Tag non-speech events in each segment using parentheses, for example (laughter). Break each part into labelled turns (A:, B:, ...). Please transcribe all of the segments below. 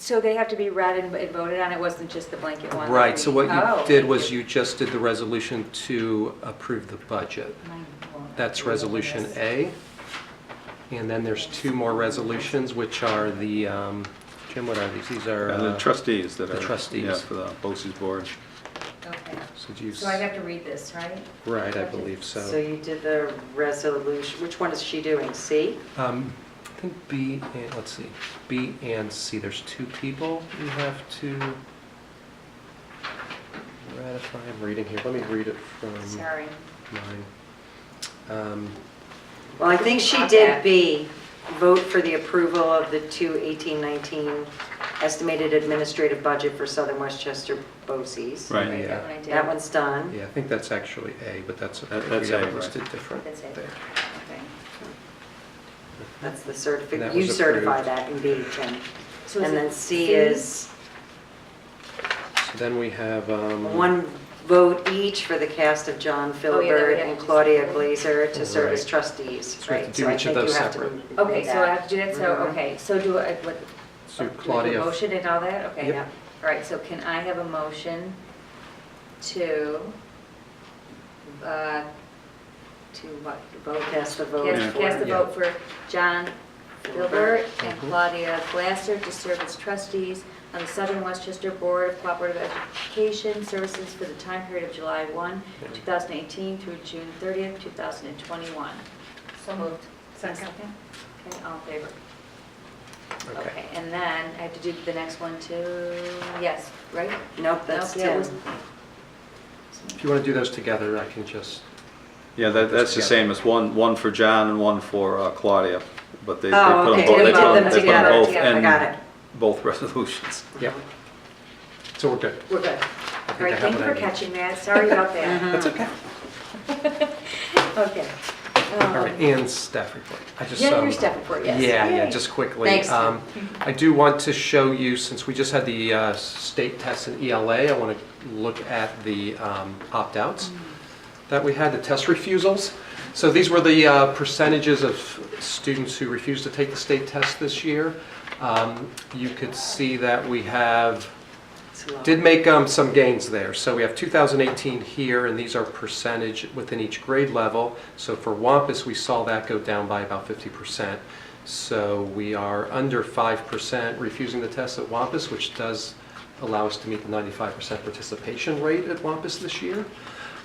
A: So they have to be read and and voted on, it wasn't just the blanket one? that
B: Right,
A: we-
B: so what
A: Oh,
B: you did
A: thank
B: was you just did the resolution to approve the budget.
A: Oh My lord.
B: That's Resolution A. And then there's two more resolutions, which are the, um, Jim, what are these? These are...
C: And the
B: uh,
C: trustees that
B: the
C: are.
B: trustees.
C: Yeah, for the BOCES board.
A: Okay.
B: So do you...
A: So I have to read this, right?
B: Right, I believe so.
D: So you did the resolution, which one is she doing, C?
B: Um, I think B, and let's see, B and C, there's two people you have to ratify, I'm reading here, let me read it from
A: Sorry.
B: mine. Um,
D: Well, I think she did B, vote for the approval of the 2018-19 estimated administrative budget for Southern Westchester BOCES.
C: Right.
A: Right,
B: Yeah.
A: that one I did.
D: That one's done.
B: Yeah, I think that's actually A, but that's, okay.
C: That- that's
B: we have
C: A,
B: it
C: right.
B: listed different
A: That's it.
B: there.
A: Okay.
D: That's the
B: And that
D: certificate, you
B: was
D: certify
B: approved.
D: that in B, Jim.
A: So is
D: And
A: it
D: then C is
B: So then we have, um...
D: one vote each for the cast of John
A: Oh, yeah, that we
D: Philbert
A: have
D: and
A: to-
D: Claudia Glazer to serve as
B: Right.
D: trustees,
B: So we have to
D: right?
B: do
D: I
B: each of
D: think you
B: those
D: have to
B: separate.
D: read
A: Okay, so I
D: that.
A: have to do that, so,
D: Mhm.
A: okay, so do I, what? do
B: So
A: I do a
B: Claudia-
A: Motion and all that, okay,
B: Yep.
A: yeah. All right, so can I have a motion to, uh, to what, vote?
D: Cast the vote
A: Cast-
C: for-
A: Cast the
B: Yeah.
A: vote for John Gilbert and
B: Mhm.
A: Claudia Glasser to serve as trustees on the Southern Westchester Board of Cooperative Education Services for the time period of July 1, 2018 through June 30th, 2021. So moved. Second. Okay, all in favor? Okay, and then I have to do the next one too, yes, right?
D: Nope, that's
A: Nope, that
D: Tim.
A: was-
B: If you want to do those together, I can just,
C: Yeah, that, that's the same, it's one, one for John and one for uh, Claudia, but they they
D: Oh,
C: put them
D: okay,
C: both,
A: we
C: they
A: did
C: put
A: them
C: them they put them
A: together,
C: both
A: yeah, I
C: in
D: got it.
C: both (laughs) resolutions.
B: yeah, so we're good.
A: We're good. All
B: I think I
A: right,
B: have
A: thank you
B: what I
A: for
B: need.
A: catching that, sorry about that.
B: That's okay.
A: (laughs) Okay. Um,
B: All right, and staff report. I just,
A: Yeah, your
B: um,
A: staff report, yes.
B: Yeah, yeah,
A: Yay.
B: just quickly.
A: Thanks, Tim.
B: Um, I do want to show you, since we just had the uh, state test and ELA, I want to look at the um, opt-outs that we had, the test refusals. So these were the uh, percentages of students who refused to take the state test this year. Um, You could see that we have
D: It's low.
B: did make um, some gains there. So we have 2018 here, and these are percentage within each grade level. So for Wampus, we saw that go down by about 50%. So we are under 5% refusing the test at Wampus, which does allow us to meet the 95% participation rate at Wampus this year.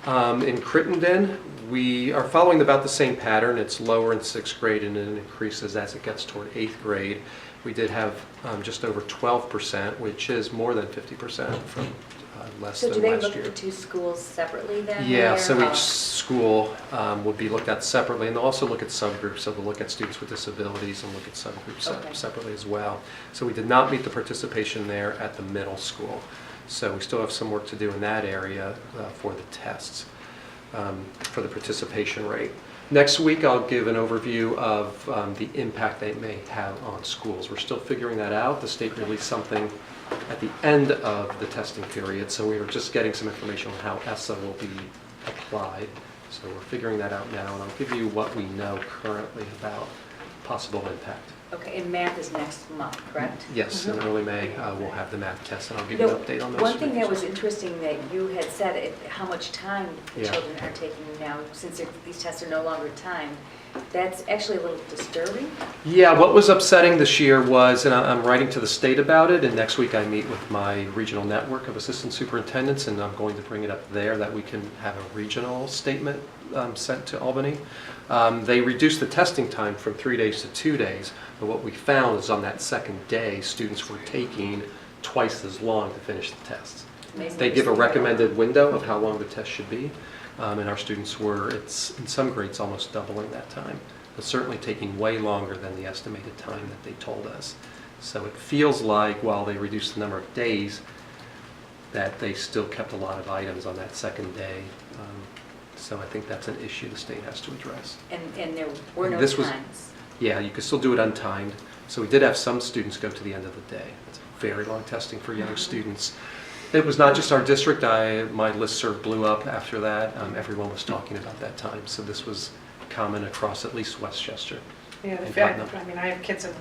B: Um, In Crittenden, we are following about the same pattern. It's lower in sixth grade and it increases as it gets toward eighth grade. We did have um, just over 12%, which is more than 50% from uh, less
A: So do
B: than
A: they
B: last
A: look at the
B: year.
A: two schools separately then?
B: Yeah,
A: or-
B: so
A: Oh.
B: each school um, would be looked at separately, and they'll also look at subgroups. So they'll look at students with disabilities and look at subgroups
A: Okay.
B: se- separately as well. So we did not meet the participation there at the middle school. So we still have some work to do in that area uh, for the tests, um, for the participation rate. Next week, I'll give an overview of um, the impact they may have on schools. We're still figuring that out. The state released something at the end of the testing period, so we were just getting some information on how ESSA will be applied. So we're figuring that out now, and I'll give you what we know currently about possible impact.
A: Okay, and math is next month, correct?
B: Yes, in early May, uh, we'll have the math test, and I'll give you
A: No,
B: an update on those.
A: Mm-hmm. One thing that was
B: figures.
A: interesting that you had said, it- how much time the
B: Yeah.
A: children are taking now, since they're- these tests are no longer timed, that's actually a little disturbing.
B: Yeah, what was upsetting this year was, and I- I'm writing to the state about it, and next week I meet with my regional network of assistant superintendents, and I'm going to bring it up there, that we can have a regional statement um, sent to Albany. Um, They reduced the testing time from three days to two days, but what we found is on that second day, students were taking twice as long to finish the tests.
A: Amazing.
B: They give a recommended window of how long the test should be, um, and our students were, it's, in some grades, almost doubling that time. But certainly taking way longer than the estimated time that they told us. So it feels like while they reduced the number of days, that they still kept a lot of items on that second day. Um, So I think that's an issue the state has to address.
A: And, and there were no
B: This was-
A: times.
B: Yeah, you could still do it untimed. So we did have some students go to the end of the day. It's very long testing for young students. It was not just our district. I, my listserv blew up after that. Um, everyone was talking about that time. So this was common across at least Westchester.
E: Yeah, the
B: and
E: fact,
B: Putnam.
E: I mean, I have kids in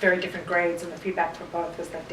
E: very different grades, and the feedback from both was that